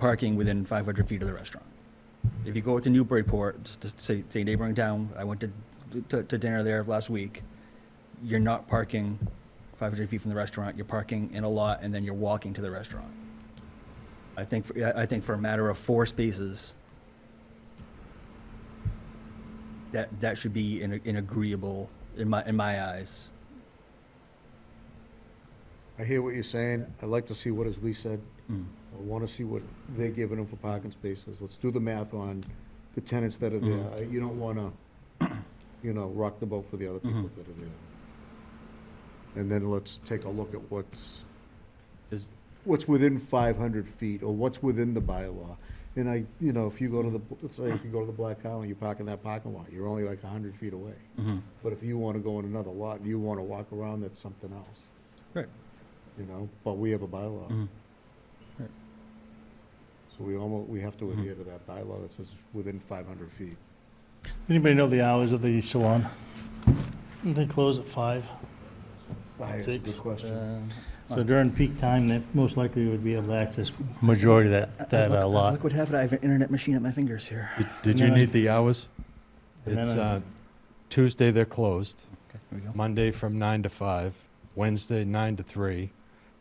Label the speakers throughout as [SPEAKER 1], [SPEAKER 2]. [SPEAKER 1] parking within 500 feet of the restaurant. If you go to Newburyport, just to say, say neighboring town, I went to, to- to dinner there last week, you're not parking 500 feet from the restaurant, you're parking in a lot, and then you're walking to the restaurant. I think, for- I I think for a matter of four spaces, that, that should be an an agreeable, in my, in my eyes.
[SPEAKER 2] I hear what you're saying. I'd like to see what, as Lee said,
[SPEAKER 1] Mm.
[SPEAKER 2] I want to see what they're giving them for parking spaces. Let's do the math on the tenants that are there. I- You don't want to, you know, rock the boat for the other people that are there. And then let's take a look at what's,
[SPEAKER 1] Is-
[SPEAKER 2] what's within 500 feet, or what's within the bylaw. And I, you know, if you go to the, let's say if you go to the Black Island, you park in that parking lot, you're only like 100 feet away.
[SPEAKER 1] Mhm.
[SPEAKER 2] But if you want to go in another lot and you want to walk around, that's something else,
[SPEAKER 1] Right.
[SPEAKER 2] you know? But we have a bylaw.
[SPEAKER 3] Mm-hmm.
[SPEAKER 1] Mhm.
[SPEAKER 2] So we almost, we have to
[SPEAKER 3] Mm-hmm.
[SPEAKER 2] adhere to that bylaw that says within 500 feet.
[SPEAKER 3] Anybody know the hours of the salon? They close at five,
[SPEAKER 2] That's a good
[SPEAKER 3] Six.
[SPEAKER 2] question.
[SPEAKER 3] so during peak time, they most likely would be able to access majority of that, that uh, lot.
[SPEAKER 1] Look what happened, I have an internet machine at my fingers here.
[SPEAKER 4] Did- Did you
[SPEAKER 3] And then I-
[SPEAKER 4] need the hours?
[SPEAKER 3] And then
[SPEAKER 4] It's
[SPEAKER 3] I-
[SPEAKER 4] uh, Tuesday, they're closed.
[SPEAKER 1] Okay, here we go.
[SPEAKER 4] Monday from nine to five, Wednesday nine to three,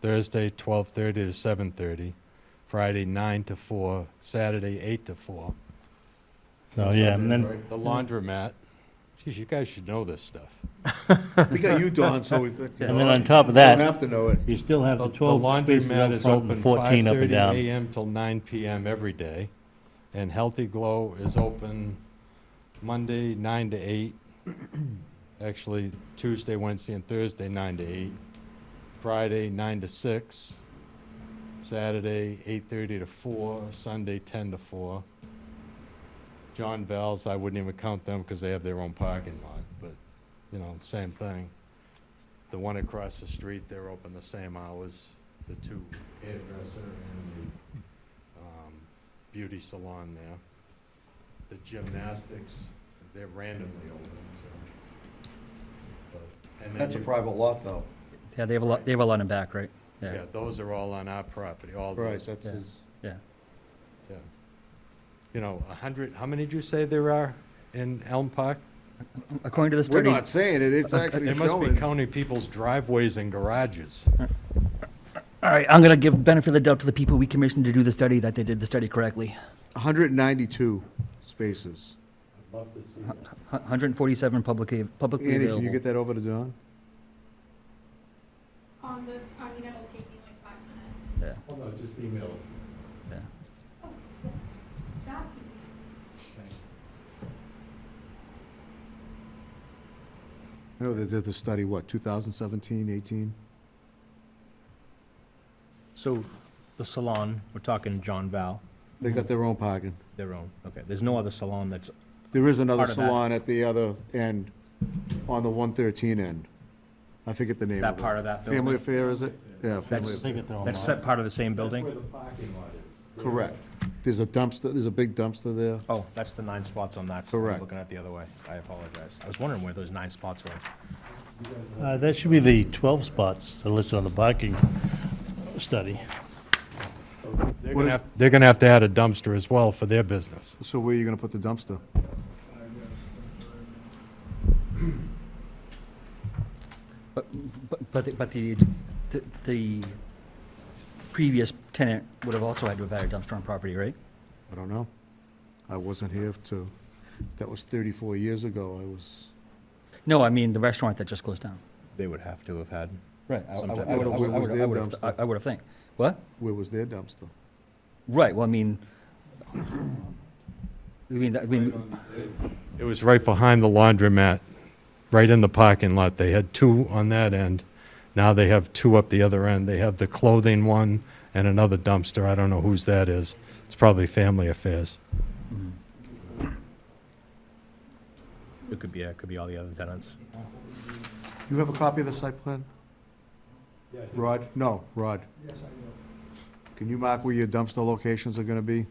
[SPEAKER 4] Thursday twelve thirty to seven thirty, Friday nine to four, Saturday eight to four.
[SPEAKER 3] So, yeah, and then,
[SPEAKER 4] The laundromat, geez, you guys should know this stuff.
[SPEAKER 2] We got you, Don, so we.
[SPEAKER 3] and then on top of that.
[SPEAKER 2] Don't have to know it.
[SPEAKER 3] You still have
[SPEAKER 4] The
[SPEAKER 3] the
[SPEAKER 4] the
[SPEAKER 3] 12 spaces
[SPEAKER 4] laundromat
[SPEAKER 3] out
[SPEAKER 4] is
[SPEAKER 3] front
[SPEAKER 4] open
[SPEAKER 3] and 14 up and
[SPEAKER 4] 5:30
[SPEAKER 3] down.
[SPEAKER 4] AM till nine PM every day, and Healthy Glow is open Monday, nine to eight. Actually, Tuesday, Wednesday, and Thursday, nine to eight. Friday, nine to six. Saturday, eight-thirty to four, Sunday, ten to four. John Val's, I wouldn't even count them because they have their own parking lot, but, you know, same thing. The one across the street, they're open the same hours, the two hairdresser and the, um, beauty salon there. The gymnastics, they're randomly open, so. but- and then
[SPEAKER 2] That's a
[SPEAKER 4] you-
[SPEAKER 2] private lot, though.
[SPEAKER 1] Yeah, they have a lot, they have a lot in back, right?
[SPEAKER 4] Yeah, those are all on our property, all
[SPEAKER 2] Right,
[SPEAKER 4] those,
[SPEAKER 2] that's
[SPEAKER 1] yeah.
[SPEAKER 2] his,
[SPEAKER 1] Yeah.
[SPEAKER 4] yeah. You know, a hundred, how many did you say there are in Elm Park?
[SPEAKER 1] According to the
[SPEAKER 2] we're
[SPEAKER 1] study,
[SPEAKER 2] not saying it, it's actually
[SPEAKER 4] They must be
[SPEAKER 2] showing.
[SPEAKER 4] counting people's driveways and garages.
[SPEAKER 1] all right, I'm gonna give benefit of the doubt to the people we commissioned to do the study, that they did the study correctly.
[SPEAKER 2] 192 spaces.
[SPEAKER 4] I'd love to see that.
[SPEAKER 1] Hu- 147 publicly, publicly
[SPEAKER 2] Andy, can you
[SPEAKER 1] available.
[SPEAKER 2] get that over to Don?
[SPEAKER 5] On the, I mean, it'll take me like five minutes.
[SPEAKER 1] Yeah,
[SPEAKER 4] Hold on, just email it.
[SPEAKER 1] yeah.
[SPEAKER 5] Oh, it's not- it's not easy.
[SPEAKER 2] No, they did the study, what, 2017, 18?
[SPEAKER 6] So the salon, we're talking John Val,
[SPEAKER 2] They got their own parking.
[SPEAKER 6] their own, okay, there's no other salon that's,
[SPEAKER 2] There is another
[SPEAKER 6] Part of that.
[SPEAKER 2] salon at the other end, on the 113 end. I forget the name of it.
[SPEAKER 6] that part of that
[SPEAKER 2] Family
[SPEAKER 6] building?
[SPEAKER 2] Affair, is it? Yeah, Family
[SPEAKER 6] That's,
[SPEAKER 2] Affair.
[SPEAKER 6] that's set part of the same building?
[SPEAKER 4] the parking lot is.
[SPEAKER 2] Correct. There's a dumpster, there's a big dumpster there.
[SPEAKER 6] Oh, that's the nine spots on that. I'm
[SPEAKER 2] Correct.
[SPEAKER 6] Looking at the other way, I apologize. I was wondering where those nine spots were.
[SPEAKER 3] Uh, That should be the 12 spots that are listed on the parking study.
[SPEAKER 4] They're gonna have, they're gonna have to add a dumpster as well for their business.
[SPEAKER 2] So where are you gonna put the dumpster?
[SPEAKER 1] But, but- but, the- but the, the- the previous tenant would have also had to have had a dumpster on property, right?
[SPEAKER 2] I don't know. I wasn't here to, that was thirty-four years ago. I was,
[SPEAKER 1] No, I mean, the restaurant that just closed down.
[SPEAKER 6] They would have to have had,
[SPEAKER 1] Right. I- I would- I
[SPEAKER 6] Sometime-
[SPEAKER 1] would- I would- I
[SPEAKER 2] Was
[SPEAKER 1] would-
[SPEAKER 2] their
[SPEAKER 1] I would have-
[SPEAKER 2] dumpster.
[SPEAKER 1] I- I would have think. What?
[SPEAKER 2] where was their dumpster?
[SPEAKER 1] Right, well, I mean, I mean, I mean,
[SPEAKER 4] It was right behind the laundromat, right in the parking lot. They had two on that end. Now they have two up the other end. They have the clothing one and another dumpster. I don't know whose that is. It's probably Family Affairs.
[SPEAKER 6] it could be, it could be all the other tenants.
[SPEAKER 2] You have a copy of the site plan? Rod? No, Rod. Yes, I do. Can you mark where your dumpster locations are gonna be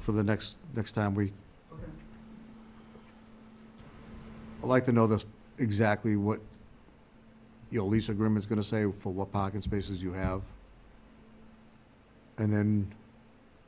[SPEAKER 2] for the next, next time we? I'd like to know this, exactly what your lease agreement's gonna say for what parking spaces you have. And then